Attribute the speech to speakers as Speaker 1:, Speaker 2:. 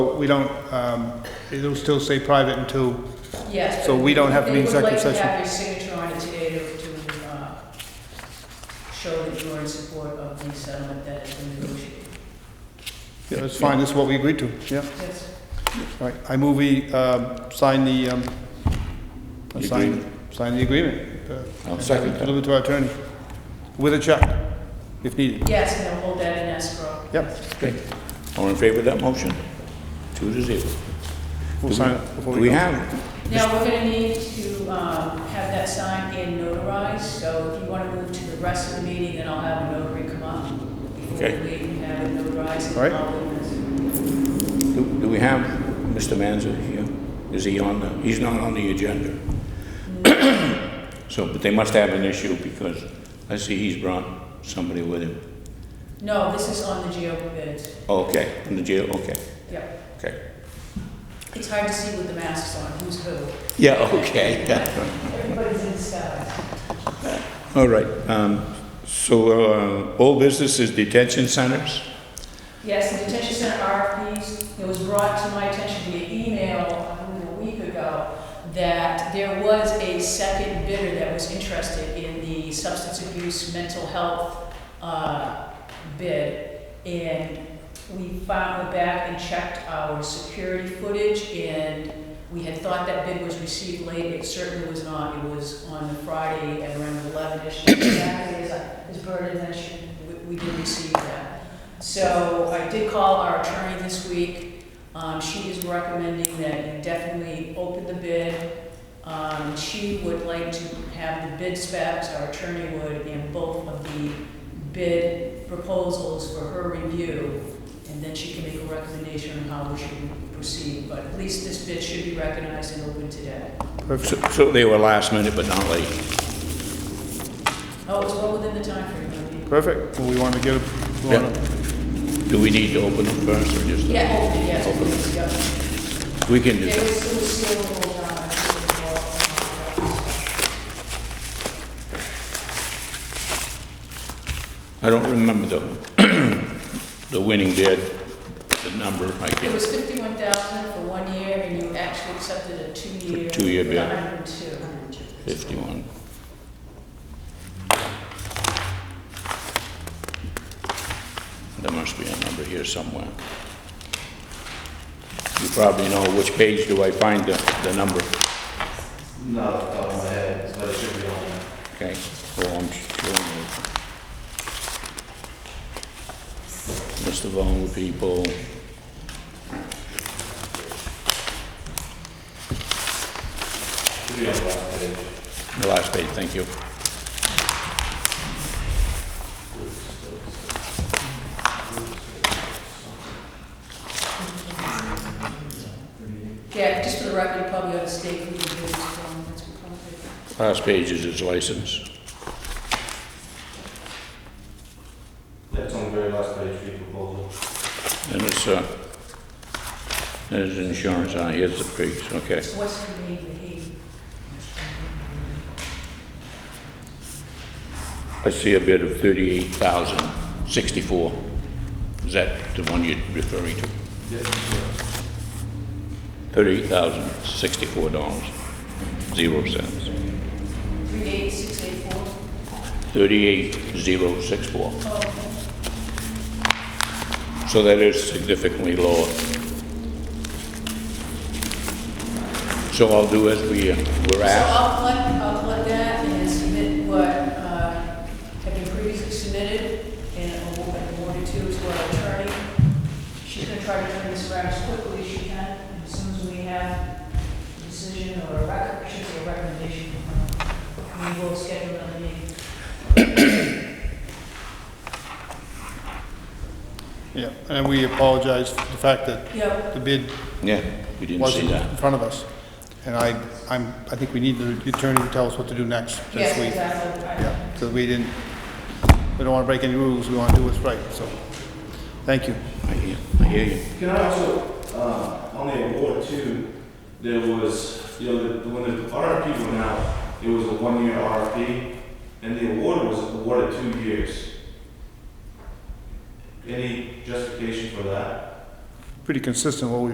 Speaker 1: We don't, um, it'll still say private until,
Speaker 2: Yes.
Speaker 1: So
Speaker 2: but
Speaker 1: we don't have to be executive
Speaker 2: They would
Speaker 1: session.
Speaker 2: like to have your signature on it today to, to, uh, show that you're in support of the settlement that has been negotiated.
Speaker 1: yeah, that's fine, this is what we agreed to, yeah.
Speaker 2: Yes.
Speaker 1: All right, I move we um, sign the, um,
Speaker 3: The
Speaker 1: sign, sign the agreement. uh,
Speaker 3: I'll second that.
Speaker 1: Deliver to our attorney, with a check, if needed.
Speaker 2: Yes, and they'll hold that in escrow.
Speaker 1: Yep,
Speaker 3: Okay. All in favor of that motion? Two to zero.
Speaker 1: we'll
Speaker 3: Do
Speaker 1: sign
Speaker 3: we-
Speaker 1: it
Speaker 3: Do
Speaker 1: before we
Speaker 3: we
Speaker 1: go.
Speaker 3: have,
Speaker 2: Now, we're gonna need to, um, have that signed and notarized, so if you wanna move to the rest of the meeting, then I'll have a notary come up. before
Speaker 3: Okay.
Speaker 2: we leave and have it notarized.
Speaker 1: All right.
Speaker 3: do do we have Mr. Manzer here? Is he on the, he's not on the agenda. So, but they must have an issue because I see he's brought somebody with him.
Speaker 2: No, this is on the GO bids,
Speaker 3: Okay, in the jail, okay,
Speaker 2: yep.
Speaker 3: okay.
Speaker 2: It's hard to see with the masks on, who's who.
Speaker 3: Yeah, okay.
Speaker 2: Everybody's in disguise.
Speaker 3: All right, um, so, uh, old business is detention centers?
Speaker 2: Yes, the detention center RFPs, it was brought to my attention via email I believe, a week ago that there was a second bidder that was interested in the substance abuse, mental health uh, bid. And we found, went back and checked our security footage and we had thought that bid was received late. It certainly was not. It was on the Friday at around 11-ish. Saturday is a- is Bird Advention. We- We did receive that. So I did call our attorney this week. Um, she is recommending that you definitely open the bid. Um, she would like to have the bid specs, our attorney would, and both of the bid proposals for her review. And then she can make a recommendation on how we should proceed, but at least this bid should be recognized and open today.
Speaker 1: Perfect.
Speaker 3: So so they were last minute but not late.
Speaker 2: Oh, it's well within the timeframe, I mean.
Speaker 1: Perfect, well, we want to get, it- we
Speaker 3: Yeah.
Speaker 1: wanna-
Speaker 3: Do we need to open them first or just?
Speaker 2: Yeah, open, yes, please, yep.
Speaker 3: We can do
Speaker 2: It
Speaker 3: that.
Speaker 2: was, it was sealable, uh, it was, uh,
Speaker 3: I don't remember the, the winning bid, the number, I
Speaker 2: It
Speaker 3: can't.
Speaker 2: was fifty-one thousand for one year, and you actually accepted a two-year.
Speaker 3: Two-year bid.
Speaker 2: hundred and two.
Speaker 3: 51. There must be a number here somewhere. You probably know which page do I find the, the number,
Speaker 4: No, off the top of my head, but it should be on there.
Speaker 3: okay? Oh, I'm sure. List of all the people.
Speaker 4: Should be on the last page.
Speaker 3: The last page, thank you.
Speaker 2: Yeah, just for the record, you probably ought to state who the bid is from, that's appropriate.
Speaker 3: Last page is his license.
Speaker 4: That's on the very last page, for your proposal.
Speaker 3: And it's, uh, there's insurance on, it. here's the creeks, okay.
Speaker 2: What's the name of the heat?
Speaker 3: I see a bid of thirty-eight thousand sixty-four. Is that the one you're referring to? Thirty-eight thousand sixty-four dollars, zero cents.
Speaker 2: Three eight six eight four?
Speaker 3: Thirty-eight zero six four.
Speaker 2: Oh, okay.
Speaker 3: So that is significantly lower. So I'll do as we uh, were
Speaker 2: So
Speaker 3: asked.
Speaker 2: I'll collect, I'll collect that and submit what, uh, had been previously submitted, and we'll make a order to, to our attorney. She's gonna try to turn this around as quickly as she can, and as soon as we have a decision or a rec, should say a recommendation from her, we will schedule another meeting.
Speaker 1: yeah, and we apologize for the fact that
Speaker 2: Yeah,
Speaker 1: the bid
Speaker 3: Yeah, we didn't see
Speaker 1: wasn't
Speaker 3: that.
Speaker 1: in front of us. And I, I'm, I think we need the attorney to tell us what to do next this
Speaker 2: yes,
Speaker 1: week.
Speaker 2: exactly. I-
Speaker 1: Yeah, so we didn't, we don't want to break any rules, we want to do what's right, so, thank you.
Speaker 3: I hear, I hear you.
Speaker 4: Can I also, uh, on the award too, there was, you know, the- when the RFP went out, it was a one-year RFP, and the award was awarded two years. Any justification for that?
Speaker 1: Pretty consistent what we